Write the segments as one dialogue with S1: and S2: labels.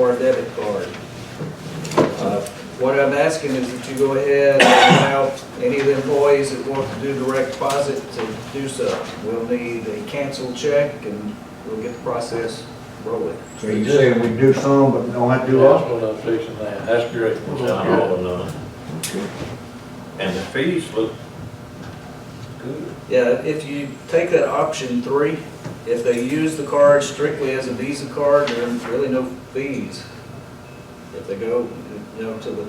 S1: or a debit card. Uh, What I'm asking is that you go ahead and allow any of the employees that want to do direct deposit to do so. We'll need a canceled check and we'll get the process rolling.
S2: So you're saying we do some, but don't have to do
S3: That's
S2: all?
S3: what I'm fixing that, that's great.
S4: Town hall and, uh, and the fees look good.
S1: Yeah, if you take that option three, if they use the card strictly as a Visa card, there are really no fees. If they go, you know, to the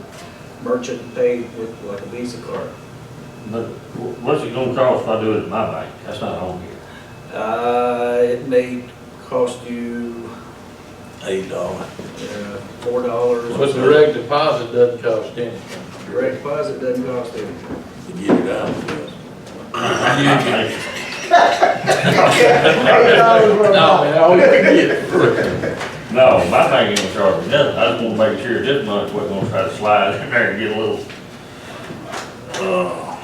S1: merchant and pay with like a Visa card.
S4: But what's it gonna cost if I do it at my bank? That's not on here.
S1: Uh, it may cost you,
S4: Eight dollars.
S1: uh, four dollars.
S3: But direct deposit doesn't cost anything.
S1: Direct deposit doesn't cost anything.
S4: To get it out
S3: No, man, I always forget.
S4: No, my bank ain't gonna charge me nothing. I just wanna make sure this month wasn't gonna try to slide in there and get a little, uh,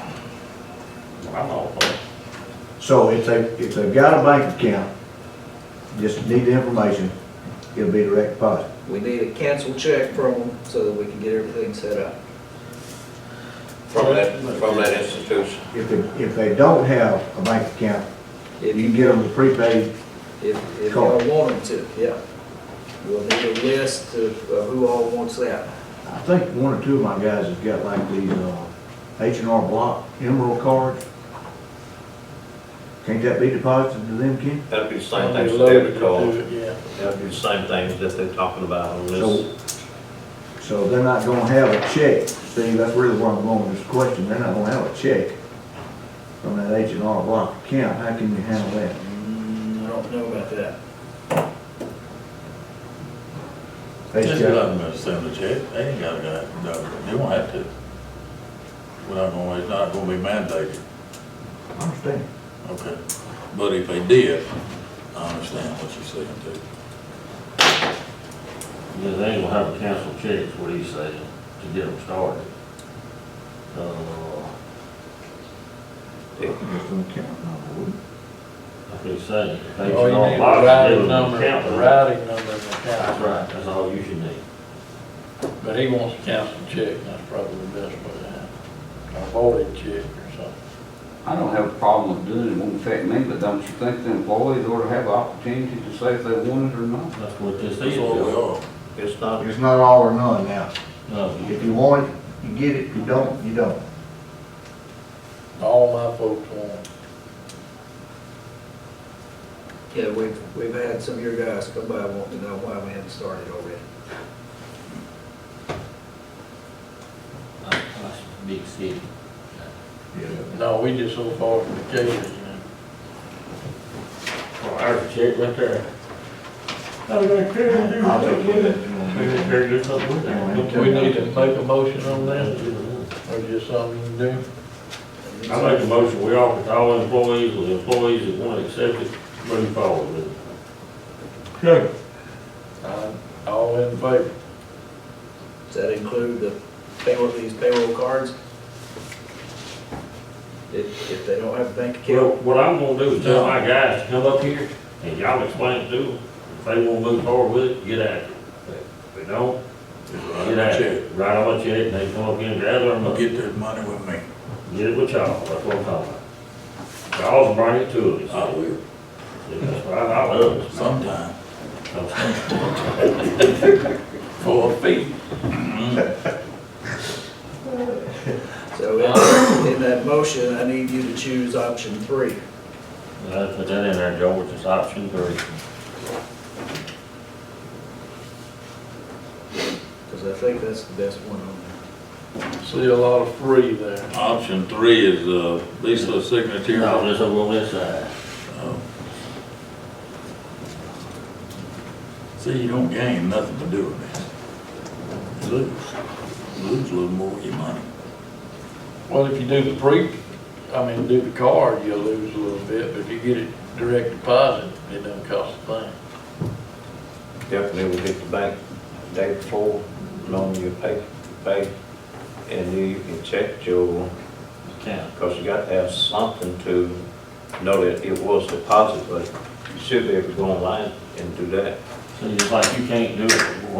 S4: I'm all for it.
S2: So if they, if they've got a bank account, just need the information, it'll be direct deposit.
S1: We need a canceled check from them so that we can get everything set up.
S5: From that, from that institution.
S2: If they, if they don't have a bank account, you
S1: If
S2: can get them the prepaid,
S1: If, if y'all
S2: Card.
S1: want them to, yeah. We'll need a list of of who all wants that.
S2: I think one or two of my guys have got like these, uh, H and R Block Emerald cards. Can't that be deposited to them, Ken?
S5: That'd be the same
S3: I'll
S5: thing
S3: be
S5: as
S3: loaded
S5: debit
S3: to
S5: card.
S3: do it, Yeah.
S5: That'd be the same thing that they're talking about on
S2: So,
S5: this.
S2: so they're not gonna have a check, see, that's really where I'm going with this question, they're not gonna have a check from that H and R Block account, how can you handle that?
S1: Mm, I don't know about that.
S2: They
S6: Just
S2: got-
S6: let them send the check, they ain't gotta, go. no, they won't have to. We're not gonna, it's not gonna be mandated,
S2: I understand.
S6: okay? But if they did, I understand what you're saying too.
S4: Yeah, they ain't gonna have a cancel check, is what he's saying, to get them started. Uh,
S2: Just an account number, wouldn't it?
S4: like he's saying, if they
S3: All Oh, you need
S4: can
S3: is a
S4: all box, give
S3: routing
S4: them
S3: number,
S4: a
S3: a
S4: count.
S3: routing number and the
S4: That's
S3: account.
S4: right, that's all you should need.
S3: But he wants a council check, and that's probably the best way to have it. A voided check or something.
S7: I don't have a problem with doing it, it won't affect me, but don't you think the employees ought to have the opportunity to say if they want it or not?
S4: That's what this
S6: That's
S4: is.
S6: what we are.
S5: It's not,
S2: It's not all or none now.
S4: No,
S2: If you want it, you get it, If you don't, you don't.
S3: All my folks want it.
S1: Yeah, we've, we've had some of your guys come by wanting to know why we hadn't started already.
S4: that's uh, that's a big city.
S3: No, we just so far from the cases, you know.
S4: Oh, there's a check right there. I was gonna
S2: I'll take care of that. You want me to-
S4: do something with that.
S3: Do we need to make a motion on that, or just something you can do?
S4: I make a motion, we offer to all employees, or the employees that want to accept it, move forward with it. Sure.
S3: Uh, All in favor?
S1: Does that include the payroll, these payroll cards? If, if they don't have a bank
S4: Well,
S1: account?
S4: what I'm gonna do is tell my guys to come up here, and y'all explain it to them. If they wanna move forward with it, get at it. If they don't,
S6: Just write
S4: get
S6: them a
S4: at
S6: check.
S4: it. Write on a check, and they come up here and gather them
S6: I'll
S4: up.
S6: get their money with me,
S4: Get it with y'all, that's what I'm talking about. Y'all bring it to
S6: I
S4: us.
S6: will,
S4: That's right, I love it.
S6: sometime,
S4: Okay.
S6: for a fee.
S1: So in, in that motion, I need you to choose option three.
S4: I put that in there, George, it's option three.
S1: Because I think that's the best one on there.
S3: See a lot of free there.
S6: Option three is, uh, Lisa signature.
S4: No, this over on this side.
S6: See, you don't gain nothing to do with this. You Lose, lose a little more of your money.
S3: Well, if you do the pre, I mean, do the card, you'll lose a little bit, but if you get it direct deposit, it doesn't cost a thing.
S5: definitely would hit the bank the day before, loan your pay, pay, and then you can check your,
S4: Count.
S5: because you got to have something to know that it was deposited, but you should be able to go online and do that.
S4: So it's like you can't do it